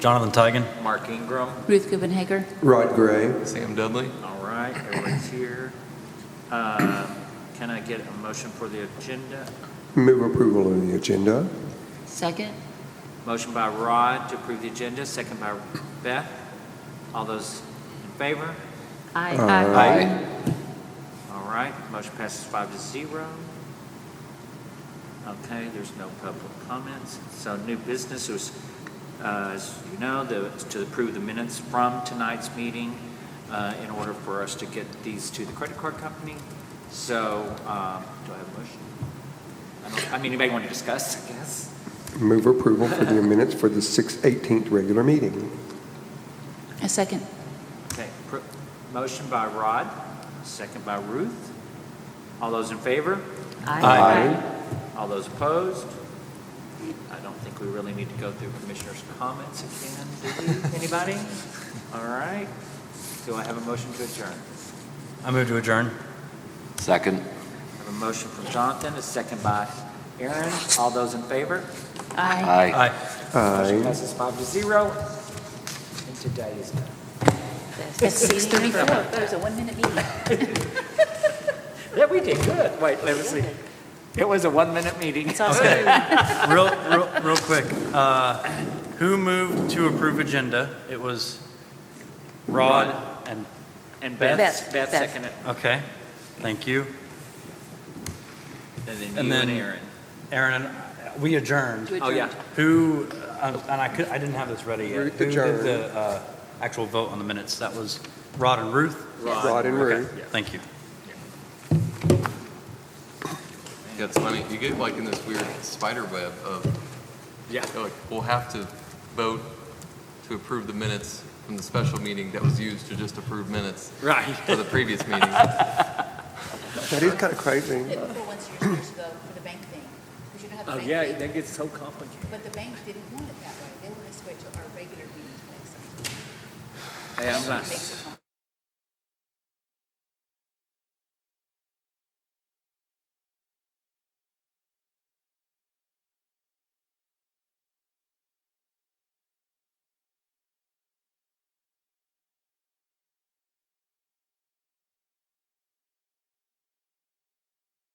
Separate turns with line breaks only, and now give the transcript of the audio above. Jonathan Tigan.
Mark Ingram.
Ruth Gubben Hager.
Rod Gray.
Sam Dudley.
All right, everyone's here. Um, Can I get a motion for the agenda?
Move approval of the agenda.
Second.
Motion by Rod to approve the agenda, second by Beth. All those in favor?
Aye.
All right, motion passes five to zero. Okay, there's no public comments. So new business was, uh, as you know, the- to approve the minutes from tonight's meeting uh, in order for us to get these to the credit card company. So um, do I have a motion? I don't- I mean, anybody want to discuss, I guess?
Move approval for the minutes for the 6/18th regular meeting.
A second.
Okay, pr- motion by Rod, second by Ruth. All those in favor?
Aye.
All those opposed? I don't think we really need to go through commissioners' comments again, do we? Anybody? All right. Do I have a motion to adjourn?
I move to adjourn.
Second.
I have a motion from Jonathan, a second by Aaron. All those in favor?
Aye.
Aye.
Aye.
Motion
Aye.
passes five to zero. And today is done.
It's six thirty-four. That was a one-minute meeting.
Yeah, we did good. Wait, let me see. It was a one-minute meeting.
It's all true.
Real, real, real quick. Uh, Who moved to approve agenda? It was Rod and,
And Beth,
Beth,
Beth
Beth.
seconded.
okay, thank you.
And
And
then you
then-
and Aaron.
Aaron, and we adjourned.
Oh, yeah.
Who, um, and I could, I didn't have this ready yet.
Ruth
Who
adjourned.
did the uh, actual vote on the minutes? That was Rod and Ruth?
Rod and
Okay,
Ruth.
Thank you.
That's funny. You get like in this weird spider web of,
Yeah.
you're like, we'll have to vote to approve the minutes from the special meeting that was used to just approve minutes
Right.
for the previous meeting.
That is kind of crazy.
For once years, years ago, for the bank thing, we should have had the
Oh,
bank
yeah,
thing.
that gets so complicated.
But the bank didn't want it that way. They wanted us to wait till our regular meeting next.
Hey, I'm
Makes
not,
it